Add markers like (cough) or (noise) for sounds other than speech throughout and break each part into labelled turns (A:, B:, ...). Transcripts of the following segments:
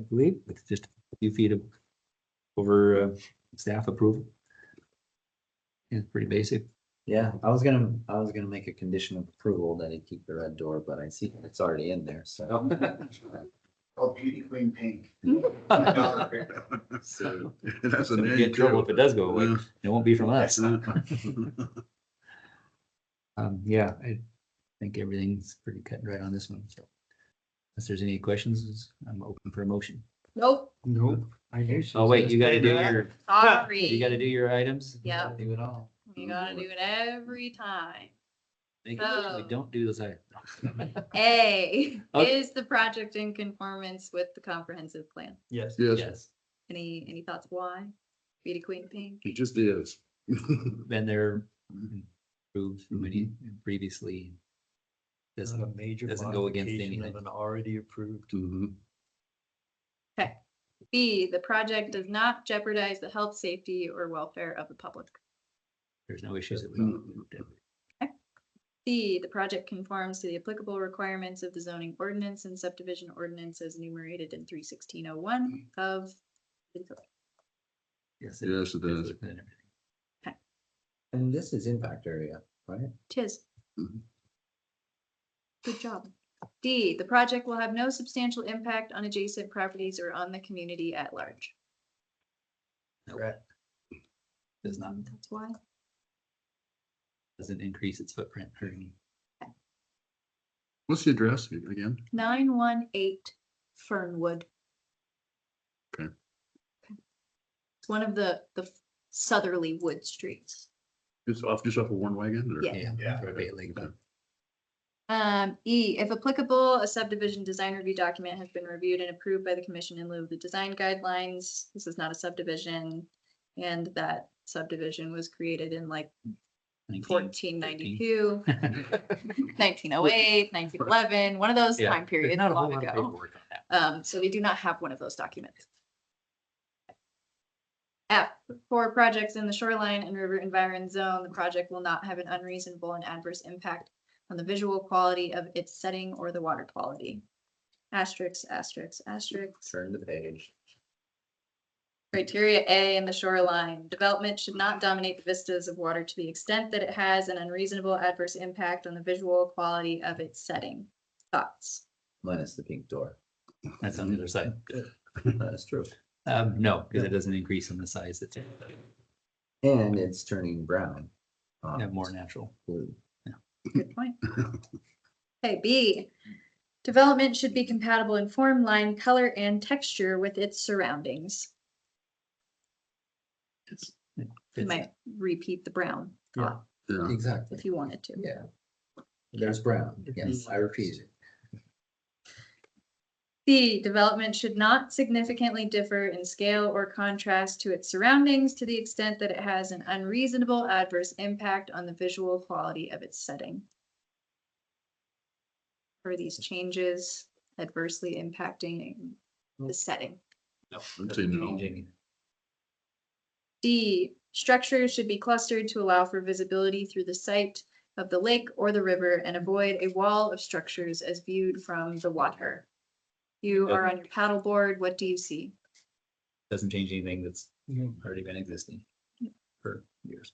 A: I believe, with just a few feet of over uh, staff approval. Yeah, It's pretty basic.
B: Yeah, I was gonna, I was gonna make a condition of approval that it keep the red door, but I see it's already in there, so.
C: Called Beauty Queen Pink.
A: So
D: That's
A: so
D: a
A: we
D: name
A: get in trouble if
D: too.
A: it does go away. It won't be from us.
B: (laughs)
D: Yeah.
A: Um, yeah, I think everything's pretty cut and dry on this one, so. Unless there's any questions, I'm open for a motion.
E: Nope,
F: Nope. I knew she
A: Oh,
F: was
A: wait,
F: gonna
A: (laughs) you gotta
F: say
A: do
F: that.
A: your, you
E: sorry.
A: gotta do your items.
E: Yep,
B: Do it all.
E: you gotta do it every time.
A: Make sure we
E: Oh.
A: don't do those (laughs) items.
E: A,
A: Okay.
E: is the project in conformance with the comprehensive plan?
A: Yes.
D: Yes.
A: Yes,
E: Any, any thoughts why? Beauty Queen Pink?
D: It just is.
A: been there, approved many previously.
F: It's
A: Doesn't
F: not a major
A: Uh, doesn't go against
F: modification
A: anything.
F: of an already approved.
D: Mhm.
E: B, the project does not jeopardize the health, safety, or welfare of the public.
A: There's no issues that we don't.
E: C, the project conforms to the applicable requirements of the zoning ordinance and subdivision ordinance as enumerated in three sixteen oh one of the code.
A: Yes.
D: Yes, it
A: is
D: does.
A: within everything.
B: And this is impact area, right?
E: Tis.
D: Mhm.
E: Good job. D, the project will have no substantial impact on adjacent properties or on the community at large.
A: Does not,
E: That's why.
A: doesn't increase its footprint or any.
D: What's the address again?
E: Nine one eight Fernwood.
D: Okay.
E: Okay. It's one of the, the southerly wood streets.
D: It's off, just off of Warren Wagon or?
E: Yeah.
C: Yeah.
A: or Bay Lake, but
E: Um, E, if applicable, a subdivision design review document has been reviewed and approved by the commission in lieu of the design guidelines. This is not a subdivision. And that subdivision was created in like
A: (laughs) 19.
E: fourteen ninety-two, nineteen oh eight, nineteen eleven, one of those
A: Yeah,
E: time
A: There's
E: periods
A: not a whole
E: long
A: lot of
E: ago.
A: paperwork on that.
E: Um, so we do not have one of those documents. F, for projects in the shoreline and river environment zone, the project will not have an unreasonable and adverse impact on the visual quality of its setting or the water quality. Asterisk, asterisk, asterisk.
B: Turn the page.
E: Criteria A in the shoreline, development should not dominate the vistas of water to the extent that it has an unreasonable adverse impact on the visual quality of its setting. Thoughts?
B: Minus the pink door.
A: That's on the other side.
B: That is true.
A: Um, no, because it doesn't increase in the size. That's
B: And it's turning brown. um,
A: yeah, more natural.
B: blue.
E: Good point. Okay, B, development should be compatible in form, line, color, and texture with its surroundings. You
A: Fits
E: might repeat the brown thought
D: Yeah.
B: Exactly.
E: if you wanted to.
B: Yeah. There's brown. Yes, I repeat it.
E: C, development should not significantly differ in scale or contrast to its surroundings to the extent that it has an unreasonable adverse impact on the visual quality of its setting. Are these changes adversely impacting the setting?
D: I'd say no.
A: changing.
E: D, structures should be clustered to allow for visibility through the site of the lake or the river and avoid a wall of structures as viewed from the water. You are on your paddleboard, what do you see?
A: Doesn't change anything that's already been existing for years.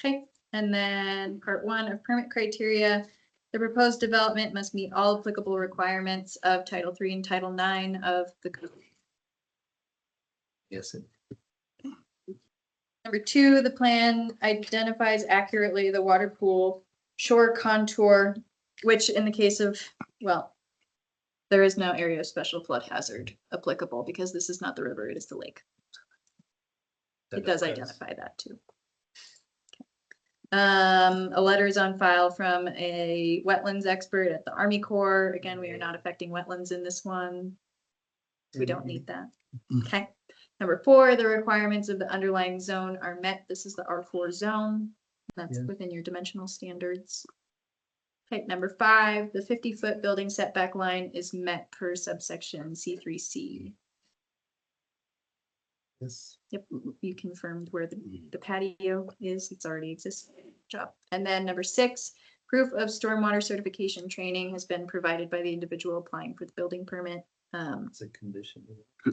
E: Okay, and then part one of permit criteria. The proposed development must meet all applicable requirements of Title III and Title IX of the code.
A: Yes, it-
E: Number two, the plan identifies accurately the water pool shore contour, which in the case of, well, there is no area of special flood hazard applicable because this is not the river, it is the lake. It does identify that too. Um, a letter is on file from a wetlands expert at the Army Corps. Again, we are not affecting wetlands in this one. We don't need that. Okay. Number four, the requirements of the underlying zone are met. This is the R four zone. That's
B: Yeah.
E: within your dimensional standards. Okay, number five, the fifty-foot building setback line is met per subsection C three C.
B: Yes.
E: Yep, you confirmed where the the patio is, it's already exists, job. And then number six, proof of stormwater certification training has been provided by the individual applying for the building permit.
G: Um,
A: It's a condition.